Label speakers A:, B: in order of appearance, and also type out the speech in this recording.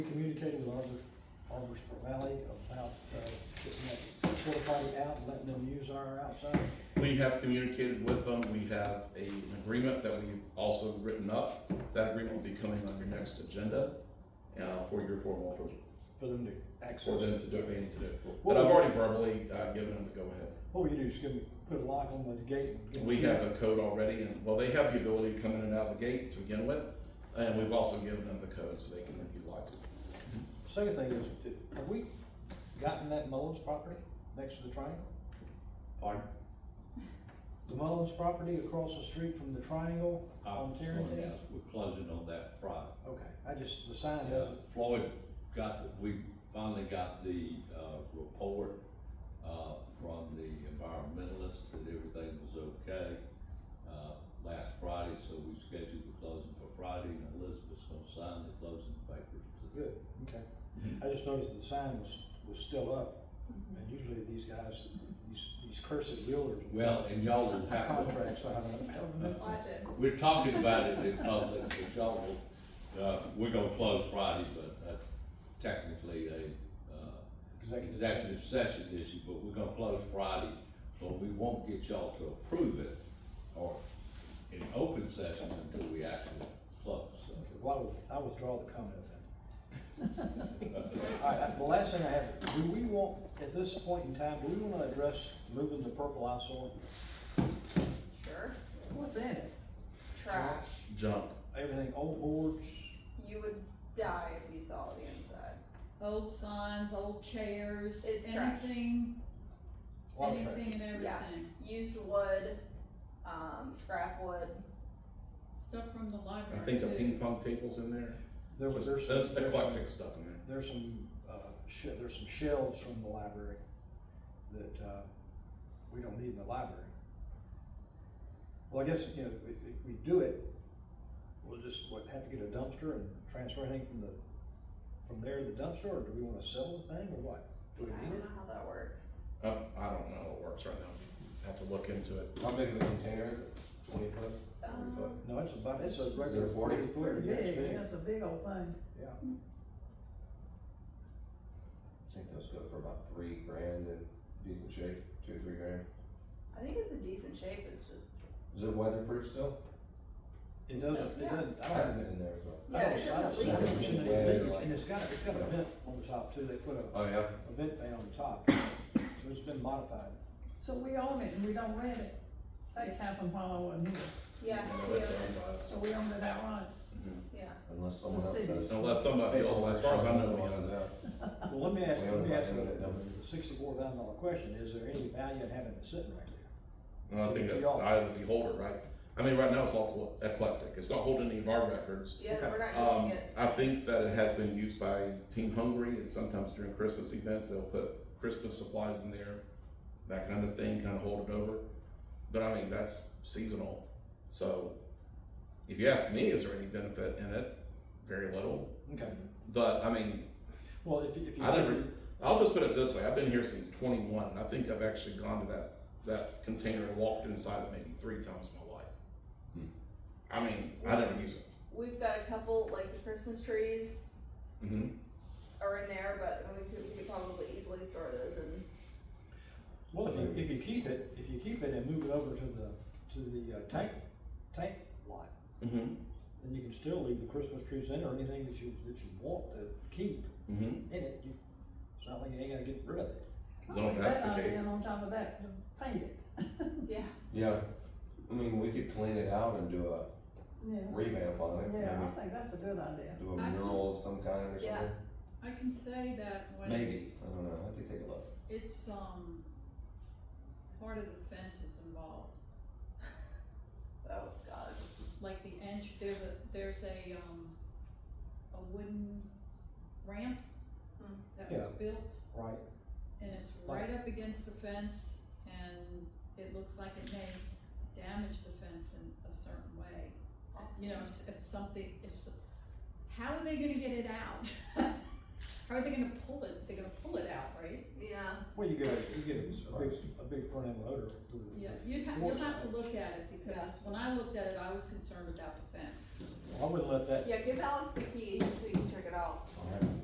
A: Communicating with Arbor, Arbor Valley about, uh, getting that porta potty out and letting them use our outside.
B: We have communicated with them, we have a- an agreement that we've also written up. That agreement will be coming on your next agenda, uh, for your formal, approval,
A: For them to access.
B: for them to do what they need to do. But I've already verbally, uh, given them the go-ahead.
A: What we do is give them, put a lock on the gate. and get
B: We
A: them-
B: have a code already, and, well, they have the ability to come in and out of the gate to begin with, and we've also given them the code so they can utilize it.
A: Second thing is, did- have we gotten that Mullins property next to the triangle?
C: Pardon?
A: The Mullins property across the street from the triangle on Tarrentine?
C: Yes, we're closing on that Friday.
A: Okay, I just, the sign
C: Yeah,
A: doesn't,
C: Floyd got, the- we finally got the, uh, report, uh, from the environmentalist that everything was okay, uh, last Friday, so we scheduled the closing for Friday, and Elizabeth's gonna sign the closing papers today.
A: good, okay.
B: Mm-hmm.
A: I just noticed the sign was, was still up, and usually these guys, these, these cursed builders.
C: Well, and y'all will have to,
A: Contracts, I haven't,
D: Watch it.
C: we're talking about it in public, but y'all will, uh, we're gonna close Friday, but that's technically a, uh,
A: exactly.
C: executive session issue, but we're gonna close Friday, but we won't get y'all to approve it or in open session until we actually close, so.
A: Well, I was- I withdraw the comment then. All right, I- the last thing I have, do we want, at this point in time, do we want to address moving the purple eyesore?
D: Sure.
E: What's in it?
D: Trash.
B: Junk,
A: Everything, old boards,
D: You would die if you saw the inside.
F: old signs, old chairs,
D: It's trash.
F: anything,
A: a lot of trash.
F: anything and
D: Yeah.
F: everything.
D: Used wood, um, scrap wood.
F: Stuff from the
B: I
F: library
B: think a
F: too.
B: ping pong table's in there,
A: There was, there's,
B: just, that's
A: there's some,
B: eclectic stuff in there.
A: there's some, uh, she- there's some shelves from the library that, uh, we don't need in the library. Well, I guess, you know, if, if we do it, we'll just, what, have to get a dumpster and transfer everything from the, from there to the dumpster, or do we wanna sell the thing, or what? Do
D: I
A: we
D: don't
A: need
D: know
A: it?
D: how that works.
B: Um, I don't know how it works right now, have to look into it.
G: How big of a container is it? Twenty foot?
D: Um,
A: No, it's about, it's a regular.
G: it 40?
A: Forty, yeah, it's big.
E: It's a big old thing.
A: yeah.
G: I think those go for about three grand in decent shape, two or three grand.
D: I think it's a decent shape. It's just
G: Is it weatherproof still?
A: It doesn't, it
D: Yeah.
A: doesn't, I
G: I
A: don't,
G: haven't been in there as well.
A: I
D: yeah,
A: don't,
D: it
A: I don't
D: doesn't
A: see
D: leak.
A: it. It's in
G: Yeah. Yeah,
A: any leaks,
G: like-
A: And it's got, it's got a
G: Yeah.
A: vent on the top too, they put a,
G: Oh, yeah?
A: a vent fan on the top, so it's been modified.
E: So we own it and we don't rent it. That happened while I wasn't here.
D: Yeah,
B: You know, uh,
D: yeah,
B: that's owned by us.
E: So we own it outright.
D: yeah.
G: Unless someone
E: The
G: else
E: city.
G: does.
B: Unless somebody else, as far as I know, we have.
A: Well, let me ask,
G: We
A: let me
G: own it,
A: ask you
G: we own it, don't
A: a sixty-four thousand dollar question, is there any value in having it sitting right there?
B: And I think that's the eye of the beholder, right? I mean, right now it's all eclectic. It's not holding any of our records.
D: Yeah, we're not using
B: Um,
D: it.
B: I think that it has been used by Team Hungry and sometimes during Christmas events, they'll put Christmas supplies in there, that kind of thing, kind of hold it over. But I mean, that's seasonal. So if you ask me, is there any benefit in it? Very little.
A: Okay,
B: But I mean,
A: well, if, you- if you.
B: I never, I'll just put it this way, I've been here since twenty-one, and I think I've actually gone to that, that container and walked inside it maybe three times in my life. Hmm. I mean, I never use it.
D: We've got a couple, like the Christmas trees
B: Mm-hmm.
D: are in there, but we could, we could probably easily store those and
A: Well, if you, if you keep it, if you keep it and move it over to the, to the uh, tank, tank lot,
B: Mm-hmm.
A: then you can still leave the Christmas trees in or anything that you, that you want to keep
B: Mm-hmm.
A: in it. You- It's not like you ain't gotta get rid of it.
B: No, if that's
E: That
B: the
E: idea
B: case.
E: On top of that, to paint it.
D: yeah.
G: Yeah, I mean, we could clean it out and do a
E: Yeah,
G: revamp on it,
E: yeah,
G: maybe
E: I think that's a good idea.
G: do a
F: I-
G: mural of some kind or
D: Yeah.
G: something.
F: I can say that when
G: Maybe, I don't know, I have to take a look.
F: it's, um, part of the fence is involved,
D: Oh God.
F: like the inch, there's a, there's a, um, a wooden ramp
D: Mm.
F: that was
A: Yeah.
F: built
A: Right.
F: and it's
A: Like-
F: right up against the fence and it looks like it may damage the fence in a certain way. you know, if, if something, if, so- how are they gonna get it out? How are they gonna pull it? They're gonna pull it out, right?
D: Yeah.
A: Well, you go, you you get a big, a big front end loader. with-
F: Yeah,
A: with
F: you'd have, you'll
A: forks.
F: have to look at it, because when I looked at it, I was concerned about the fence.
A: I wouldn't let that
D: Yeah, give Alex the key so you can check it out.
G: All right.